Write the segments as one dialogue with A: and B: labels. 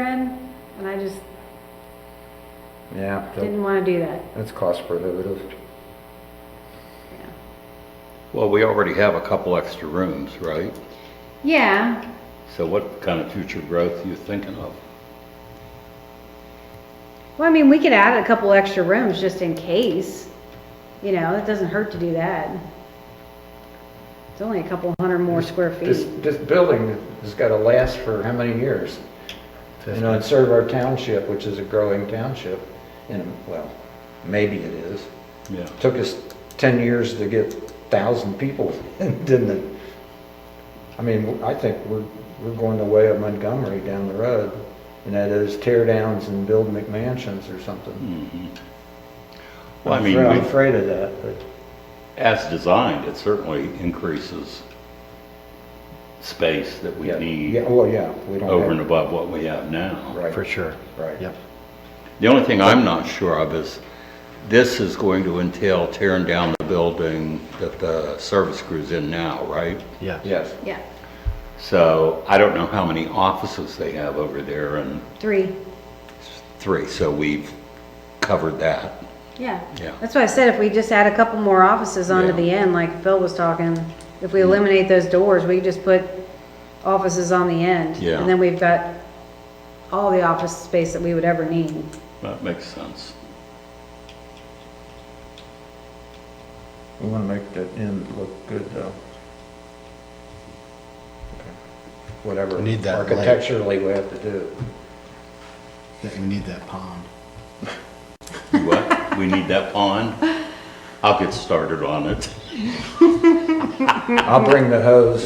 A: red, and I just
B: Yeah, that-
A: didn't want to do that.
B: that's cost prohibitive.
C: Well, we already have a couple extra rooms, right?
A: Yeah,
C: So what kind of future growth are you thinking of?
A: well, I mean, we could add a couple extra rooms just in case, you know, it doesn't hurt to do that. It's only a couple hundred more square
B: This,
A: feet.
B: this building has got to last for how many years? You know, and serve our township, which is a growing township, and, well, maybe it is.
C: Yeah.
B: Took us 10 years to get 1,000 people, didn't it? I mean, I think we're, we're going the way of Montgomery down the road, and that is tear downs and build McMansions or something.
C: Well, I
B: I'm
C: mean,
B: afraid- I'm
C: we-
B: afraid of that, but.
C: As designed, it certainly increases space that we
B: Yeah, Yeah,
C: need
B: well, yeah, we don't
C: over and
B: have,
C: above what we have now.
B: right.
D: For sure.
B: Right.
D: Yep.
C: The only thing I'm not sure of is, this is going to entail tearing down the building that the service crew's in now, right?
D: Yeah.
B: Yes,
A: Yeah,
C: So I don't know how many offices they have over there and
A: three,
C: three, so we've covered that.
A: yeah.
C: Yeah.
A: That's why I said if we just add a couple more offices onto
C: Yeah. Mm-hmm.
A: the end, like Phil was talking, if we eliminate those doors, we just put offices on the end.
C: Yeah.
A: And then we've got all the office space that we would ever need.
C: That makes sense.
B: we want to make that end look good, though. Whatever
D: We need that light.
B: architecturally we have to do.
D: That we need that pond.
C: You What? We need that pond? I'll get started on it.
B: I'll bring the hose.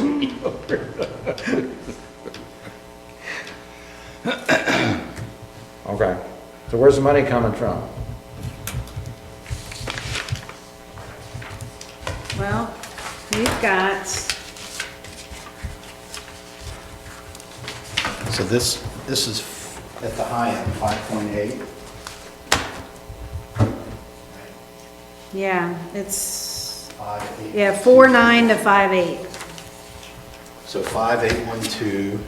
B: Okay, so where's the money coming from?
A: Well, you've got,
D: So this, this is f- at the high end, 5.8.
A: yeah, it's,
D: Five, eight,
A: yeah,
D: two,
A: four
D: three.
A: nine to five eight.
D: So 5812.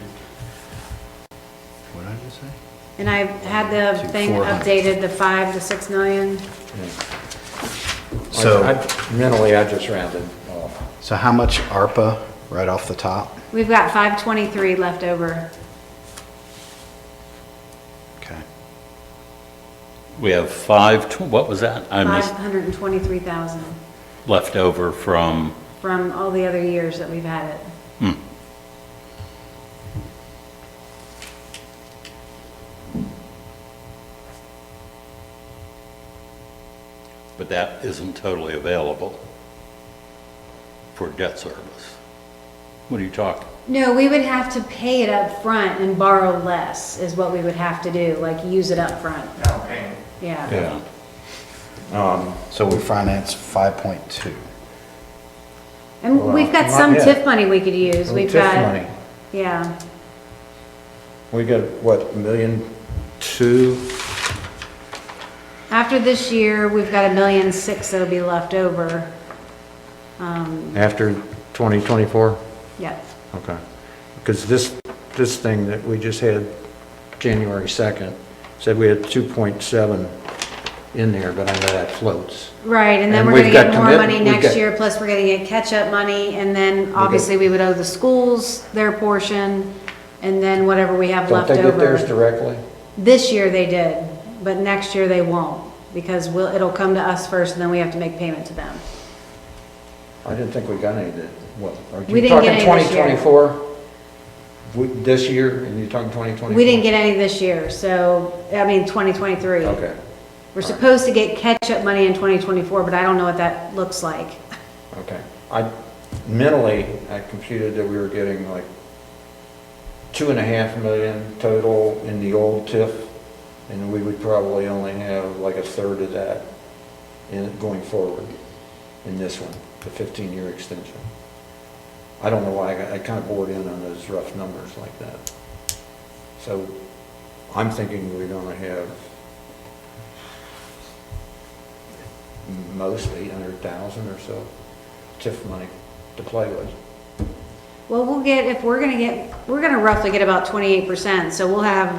D: What did I just say?
A: And I had the
D: To
A: thing
D: 400.
A: updated, the five to six million.
B: I-
D: So,
B: I- Mentally, I just rounded off.
D: so how much ARPA right off the top?
A: We've got five twenty-three left over.
D: Okay.
C: We have five, tw- what was that? I
A: Five
C: missed
A: hundred and twenty-three thousand
C: left over from,
A: from all the other years that we've had it.
C: but that isn't totally available for debt service. What are you talking?
A: No, we would have to pay it up front and borrow less is what we would have to do, like use it up front. Yeah,
C: Yeah.
D: So we finance 5.2.
A: and we've got
B: Well,
A: some
B: not
A: TIF
B: yet.
A: money we could use. We've
B: TIF
A: got,
B: money.
A: yeah,
B: We got, what, a million two?
A: after this year, we've got a million six that'll be left over.
B: After 2024?
A: Yep,
B: Okay. Because this, this thing that we just had January 2nd said we had 2.7 in there, but I know that floats.
A: right, and then we're
B: And
A: gonna
B: we've
A: get
B: got
A: more
B: commit-
A: money
B: we've
A: next
B: got-
A: year, plus we're gonna get catch-up money, and then obviously we would owe the schools their portion, and then whatever we have
B: Don't
A: left
B: they get theirs
A: over.
B: directly?
A: This year they did, but next year they won't, because we'll, it'll come to us first, and then we have to make payment to them.
B: I didn't think we got any that, what, are
A: We
B: you
A: didn't
B: talking
A: get any this year.
B: 2024? We- This year, and you're talking 2024?
A: We didn't get any this year, so, I mean, 2023.
B: Okay,
A: We're supposed to get catch-up money in 2024, but I don't know what that looks like.
B: okay. I, mentally, I computed that we were getting like two and a half million total in the old TIF, and we would probably only have like a third of that in, going forward in this one, the 15-year extension. I don't know why, I got- I kind of bored in on those rough numbers like that. So I'm thinking we're going to have most 800,000 or so TIF money to play with.
A: Well, we'll get, if we're gonna get, we're gonna roughly get about 28%, so we'll have